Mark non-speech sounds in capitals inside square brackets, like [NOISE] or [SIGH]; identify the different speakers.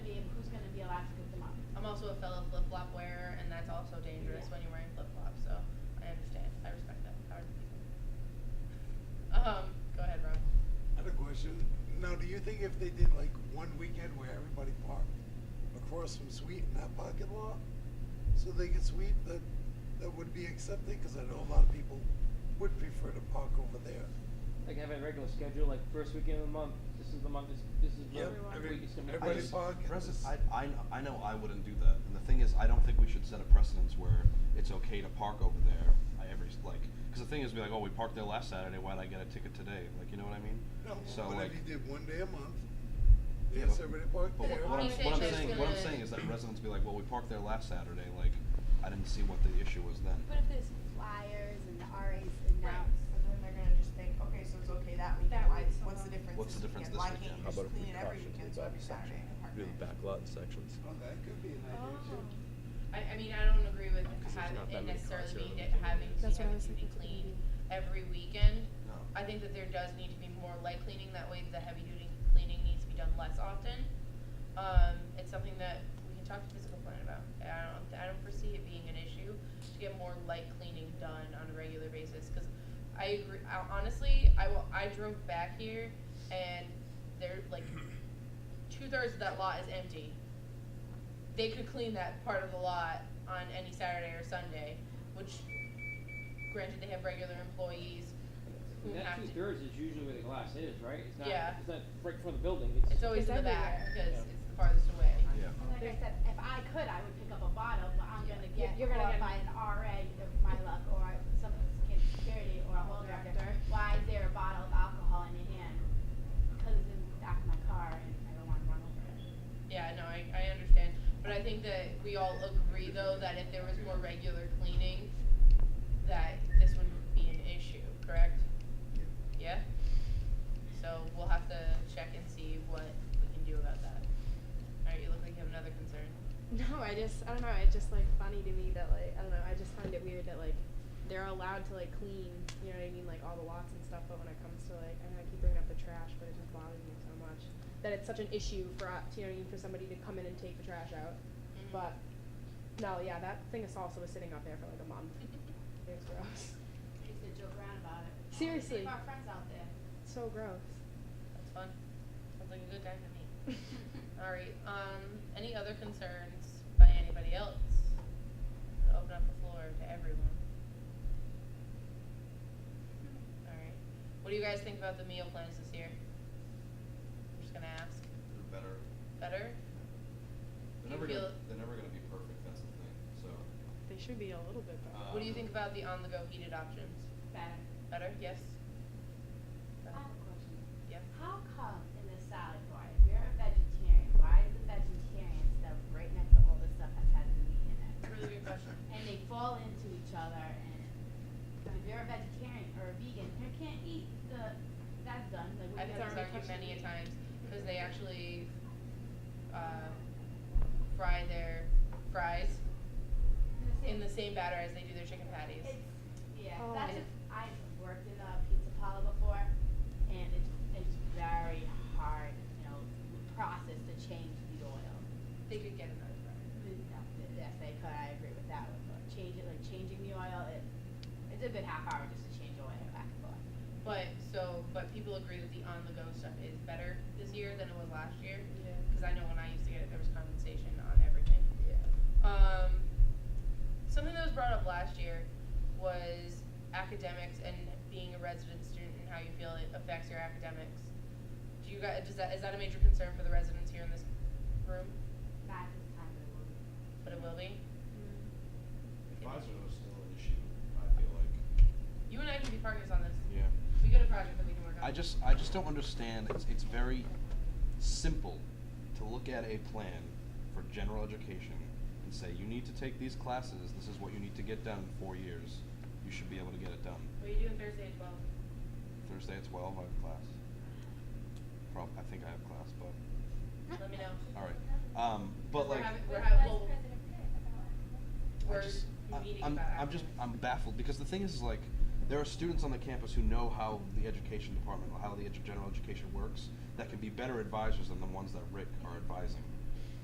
Speaker 1: Um,
Speaker 2: if they did like one weekend where everybody parked across from Sweet in that parking lot, so they could sweep, that, that would be accepted, because I know a lot of people would prefer to park over there.
Speaker 3: Like have a regular schedule, like first weekend of the month, this is the month, this, this is
Speaker 2: Yeah,
Speaker 3: the
Speaker 2: every-
Speaker 3: week, it's gonna be.
Speaker 2: everybody
Speaker 3: this.
Speaker 2: park at
Speaker 4: President,
Speaker 2: this-
Speaker 4: I, I, kn- I know I wouldn't do that, and the thing is, I don't think we should set a precedence where it's okay to park over there. I every s- like, because the thing is, be like, oh, we parked there last Saturday. Why'd I get a ticket today? Like, you know what I mean?
Speaker 2: No,
Speaker 4: so
Speaker 2: but
Speaker 4: like,
Speaker 2: if you did one day a month,
Speaker 4: Yeah,
Speaker 2: yes,
Speaker 4: but-
Speaker 2: everybody parked
Speaker 4: but
Speaker 2: there.
Speaker 4: what, what I'm,
Speaker 1: If
Speaker 4: what I'm
Speaker 1: it's
Speaker 4: saying, what I'm
Speaker 1: gonna-
Speaker 4: saying is that residents be like, well, we parked there last Saturday. Like, I didn't see what the issue was then.
Speaker 5: But if there's flyers and the RAs announce.
Speaker 6: Right, so then they're gonna just think, okay, so it's okay that weekend,
Speaker 5: That week
Speaker 6: why, what's
Speaker 5: somehow.
Speaker 6: the difference
Speaker 4: What's the
Speaker 6: this
Speaker 4: difference this
Speaker 6: weekend? Why
Speaker 4: weekend?
Speaker 6: can't you
Speaker 4: How
Speaker 6: just clean it every weekend, so every Saturday and
Speaker 7: Do
Speaker 6: park
Speaker 7: the
Speaker 6: there?
Speaker 7: back lot in sections.
Speaker 2: Oh, that could be an idea too.
Speaker 1: I, I mean, I don't agree with
Speaker 7: 'Cause there's
Speaker 1: having
Speaker 7: not
Speaker 1: it
Speaker 7: that many
Speaker 1: necessarily
Speaker 7: cars
Speaker 1: being,
Speaker 7: here.
Speaker 1: it having to
Speaker 8: That's what I
Speaker 1: have
Speaker 8: was
Speaker 1: to be
Speaker 8: thinking.
Speaker 1: cleaned every weekend.
Speaker 4: No.
Speaker 1: I think that there does need to be more light cleaning, that way the heavy duty cleaning needs to be done less often. Um, it's something that we can talk to physical plant about, I don't, I don't foresee it being an issue to get more light cleaning done on a regular basis, cause I agree, I- honestly, I will, I drove back here and there, like, two thirds of that lot is empty. They could clean that part of the lot on any Saturday or Sunday, which granted they have regular employees who
Speaker 3: And
Speaker 1: have to.
Speaker 3: That two thirds is usually where the glass is, right? It's not,
Speaker 1: Yeah.
Speaker 3: it's not right before the building,
Speaker 1: It's always
Speaker 8: It's
Speaker 1: in the back
Speaker 8: everywhere.
Speaker 1: because
Speaker 3: Yeah.
Speaker 1: it's the farthest away.
Speaker 4: Yeah.
Speaker 5: Like I said, if I could, I would pick up a bottle, but I'm gonna
Speaker 8: Yeah,
Speaker 5: get
Speaker 8: you're gonna
Speaker 5: caught
Speaker 8: get-
Speaker 5: by an RA of my luck, or some kid's security, or a
Speaker 8: Bottle
Speaker 5: hall director.
Speaker 8: director.
Speaker 5: Why is there a bottle of alcohol in your hand? Cause it's in the back of my car and I don't wanna run over it.
Speaker 1: Yeah, no, I, I understand, but I think that we all agree though that if there was more regular cleaning, that this wouldn't be an issue, correct? Yeah? So we'll have to check and see what we can do about that. Alright, you look like you have another concern.
Speaker 8: No, I just I don't know. It's just like funny to me that like I don't know. I just find it weird that like they're allowed to like clean. You know what I mean? Like all the lots and stuff. But when it comes to like I know I keep bringing up the trash, but it just bothers me so much that it's such an issue for uh, you know what I mean for somebody to come in and take the trash out.
Speaker 1: Mhm.
Speaker 8: But no, yeah, that thing of salsa was sitting up there for like a month. It was gross.
Speaker 5: I used to joke around about it.
Speaker 8: Seriously.
Speaker 5: Leave our friends out there. [LAUGHS]
Speaker 8: So gross.
Speaker 1: That's fun. Sounds like a good time to me. Alright, um, any other concerns by anybody else? I'll Open up the floor to everyone. Alright, what do you guys think about the meal plans this year? I'm just gonna ask,
Speaker 4: They're better.
Speaker 1: better?
Speaker 4: They're
Speaker 1: You
Speaker 4: never
Speaker 1: feel-
Speaker 4: gonna, they're never gonna be perfect. That's the thing. So.
Speaker 8: They should be a little bit better.
Speaker 1: What do you
Speaker 4: um,
Speaker 1: think about the on-the-go heated options?
Speaker 5: Better.
Speaker 1: Better, yes?
Speaker 5: I
Speaker 1: Better?
Speaker 5: have a question.
Speaker 1: Yeah.
Speaker 5: How come in the salad bar, if you're a vegetarian, why is the vegetarian stuff right next to all the stuff that has meat in it?
Speaker 1: Really good question.
Speaker 5: And they fall into each other and, if you're a vegetarian or a vegan, you can't eat the, that's done, like
Speaker 1: I've
Speaker 5: what you
Speaker 1: had
Speaker 5: have
Speaker 1: this
Speaker 5: to
Speaker 1: argument many a times, because they actually, uh, fry their fries in the same batter as they do their chicken patties.
Speaker 5: It's, yeah,
Speaker 8: Oh.
Speaker 5: that's just, I've worked in a pizza parlor before, and it's, it's very hard, you know, process to change the oil.
Speaker 1: They could get another fryer.
Speaker 5: Yes, they could, I agree with that one, but change it, like changing the oil, it, it's a good half hour just to change oil back and forth.
Speaker 1: But so, but people agree that the on-the-go stuff is better this year than it was last year. Because I know when I used to get it, there was condensation on everything. Yeah. Um, something that was brought up last year was academics and being a resident student and how you feel it affects your academics. Do you guys? Does that is that a major concern for the residents here in this room?
Speaker 5: Back to the time of the movie.
Speaker 1: But it will be.
Speaker 4: Advisors are still an issue. I feel like.
Speaker 1: You and I can be partners on this.
Speaker 4: Yeah.
Speaker 1: We got a project that we can work on.
Speaker 4: I just I just don't understand. It's it's very simple to look at a plan for general education and say you need to take these classes. This is what you need to get done in four years. You should be able to get it done.
Speaker 1: What are you doing Thursday at twelve?
Speaker 4: Thursday at twelve, I have class. Prob I think I have class, but
Speaker 1: Let me know.
Speaker 4: all right. Um, but
Speaker 1: We're
Speaker 4: like.
Speaker 1: having- we're
Speaker 9: What
Speaker 1: having-
Speaker 9: vice
Speaker 1: we'll-
Speaker 9: president pick about it?
Speaker 1: We're
Speaker 4: I just,
Speaker 1: meeting
Speaker 4: I, am
Speaker 1: about
Speaker 4: I'm just,
Speaker 1: academics.
Speaker 4: I'm baffled because the thing is, is like, there are students on the campus who know how the education department, how the edu- general education works, that can be better advisors than the ones that Rick are advising.